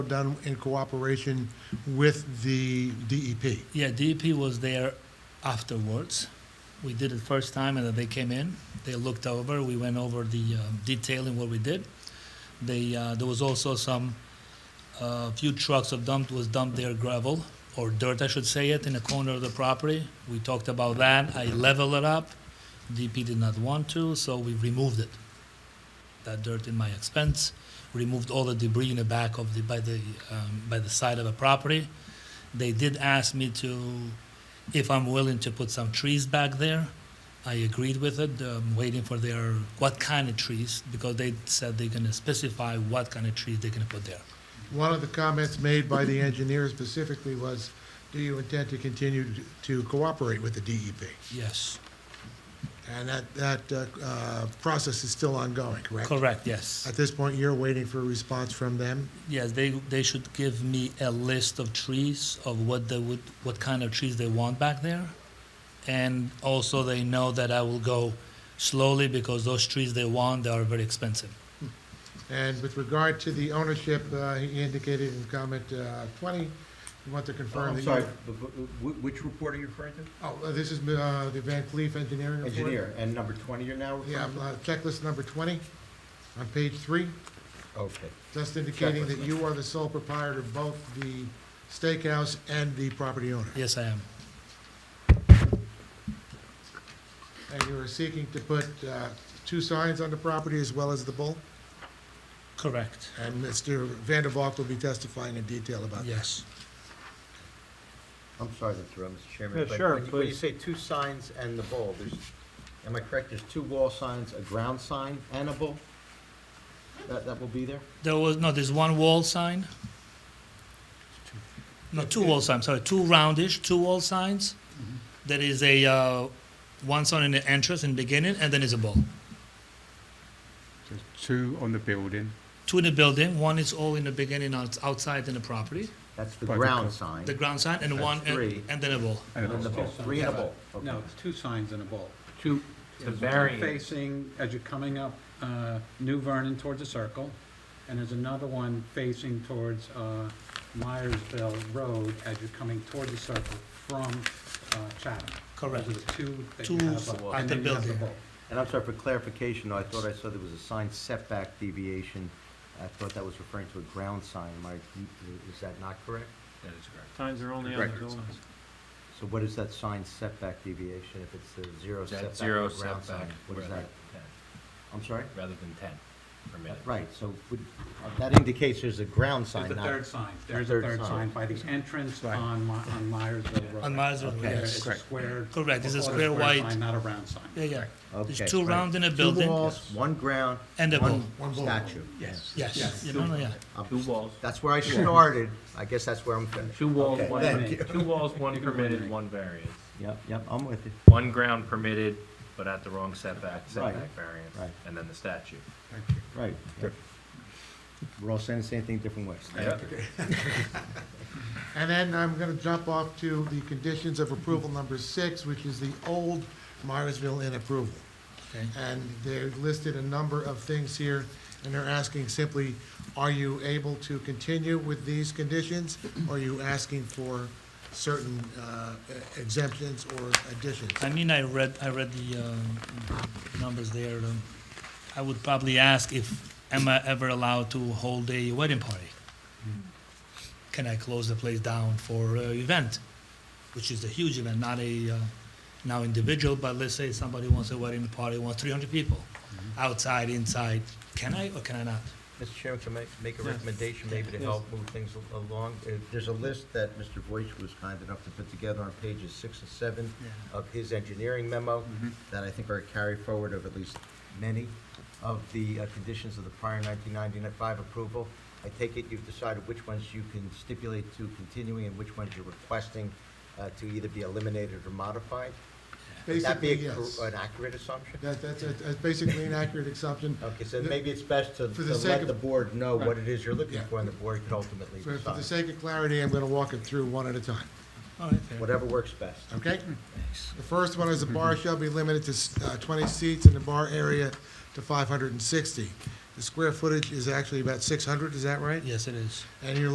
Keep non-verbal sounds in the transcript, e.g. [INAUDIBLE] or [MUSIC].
done in cooperation with the E DEP. Yeah, DEP was there afterwards. We did it first time, and then they came in. They looked over. We went over the um, detail in what we did. They uh, there was also some uh, few trucks of dumped was dumped their gravel or dirt, I should say it, in a corner of the property. We talked about that. I leveled it up. DEP did not want to, so we removed it. That dirt in my expense. Removed all the debris in the back of the by the um, by the side of the property. They did ask me to, if I'm willing to put some trees back there. I agreed with it, um, waiting for their, what kind of trees, because they said they're gonna specify what kind of trees they're gonna put there. One of the comments made by the engineer specifically was, do you intend to continue to cooperate with the DEP? Yes. And that, that uh, uh, process is still ongoing, correct? Correct, yes. At this point, you're waiting for a response from them? Yes, they, they should give me a list of trees, of what they would, what kind of trees they want back there. And also they know that I will go slowly because those trees they want, they are very expensive. And with regard to the ownership, uh, he indicated in comment uh, 20, you want to confirm Oh, I'm that sorry, you... but- but- wh- which report are you referring to? Oh, uh, this is uh, the Van Cleef Engineering Report? Engineer, and number 20 you're now Yeah, referring to? uh, checklist number 20, on page three. Okay. Just indicating Checklist. that you are the sole proprietor of both the steakhouse and the property owner. Yes, I am. And you are seeking to put uh, two signs on the property as well as the bull? Correct, And Mr. Vandervalk will be testifying in detail about that. yes. I'm sorry to throw, Mr. Chairman. Yeah, but sure, when you- When you please. say two signs and the bull, there's, am I correct, there's two wall signs, a ground sign and a bull? That, that will be there? There was, no, there's one wall sign. No, two wall signs, sorry, two roundish, two wall signs. Mm-hmm. There is a, uh, one sign in the entrance in the beginning, and then is a ball. There's two on the building. Two in the building, one is all in the beginning, outs- outside in the property, That's the By the ground co- sign, the ground sign, and That's one, three. and and then a ball. and and the a- bull, three and a bull. Okay. No, it's two signs and a bulb. Two, there's one variant. facing, as you're coming up uh, New Vernon towards the circle, and there's another one facing towards uh, Myersville Road as you're coming toward the circle from uh, Chatham. Correct. Those are the two that Two you have at up, the and then you have the building. bulb. And I'm sorry, for clarification, I thought I saw there was a sign setback deviation. I thought that was referring to a ground sign. Am I, is that not correct? Times are only on the buildings. So what is that sign setback deviation if it's a zero setback? That's zero or ground setback. sign? What is rather that? I'm sorry? Rather than ten per minute. Right, so would- uh, that indicates there's a ground There's sign, the third not, sign. There's a third sign by the entrance Right. on Mi- on Myersville Road. On Myersville, There, yes. It's a Correct. square. Correct, it's a or square white- sign, Not a round sign. Yeah, yeah. Okay, There's two right. round in a two building, walls, one ground, and a ball. One one bull. statue. Yes. Yes, you know, yeah. I'm- Two walls, That's where I started, I guess that's where I'm finished. two walls, Okay, one, thank two [LAUGHS] walls, one can permitted, eliminate. one variance. Yep, yep, I'm with you. One ground permitted, but at the wrong setback, setback variance, right. and then the statue. Right. yep. We're all saying the same thing different ways. And then I'm going to jump off to the conditions of approval number six, which is the old Myersville Inn approval. Okay. And they listed a number of things here, and they're asking simply, are you able to continue with these conditions? Or are you asking for certain uh, exemptions or additions? I mean, I read, I read the um, numbers there. um, I would probably ask if, am I ever allowed to hold a wedding party? Can I close the place down for an event, which is a huge event, not a, uh, now individual, but let's say somebody wants a wedding party, wants 300 people, outside, inside, can I or can I not? Mr. Chairman, can I make a recommendation maybe to help move things al- along? Uh, There's a list that Mr. Voish was kind enough to put together on pages six and seven Yeah. of his engineering memo Mm-hmm. that I think are a carry forward of at least many of the uh, conditions of the prior 1995 approval. I take it you've decided which ones you can stipulate to continuing and which ones you're requesting uh, to either be eliminated or modified? Would that be Basically, a yes. cor- an accurate assumption? That- That's that's basically an accurate assumption. Okay, so maybe it's best to For the to sake of- let the board know what it is you're looking Yeah. for, and the board could ultimately For for the decide. sake of clarity, I'm going to walk it through one at a time, All right, fair. Whatever works best. okay? The first one is the bar shall be limited to uh, 20 seats in the bar area to 560. The square footage is actually about 600, is that right? Yes, it is. And you're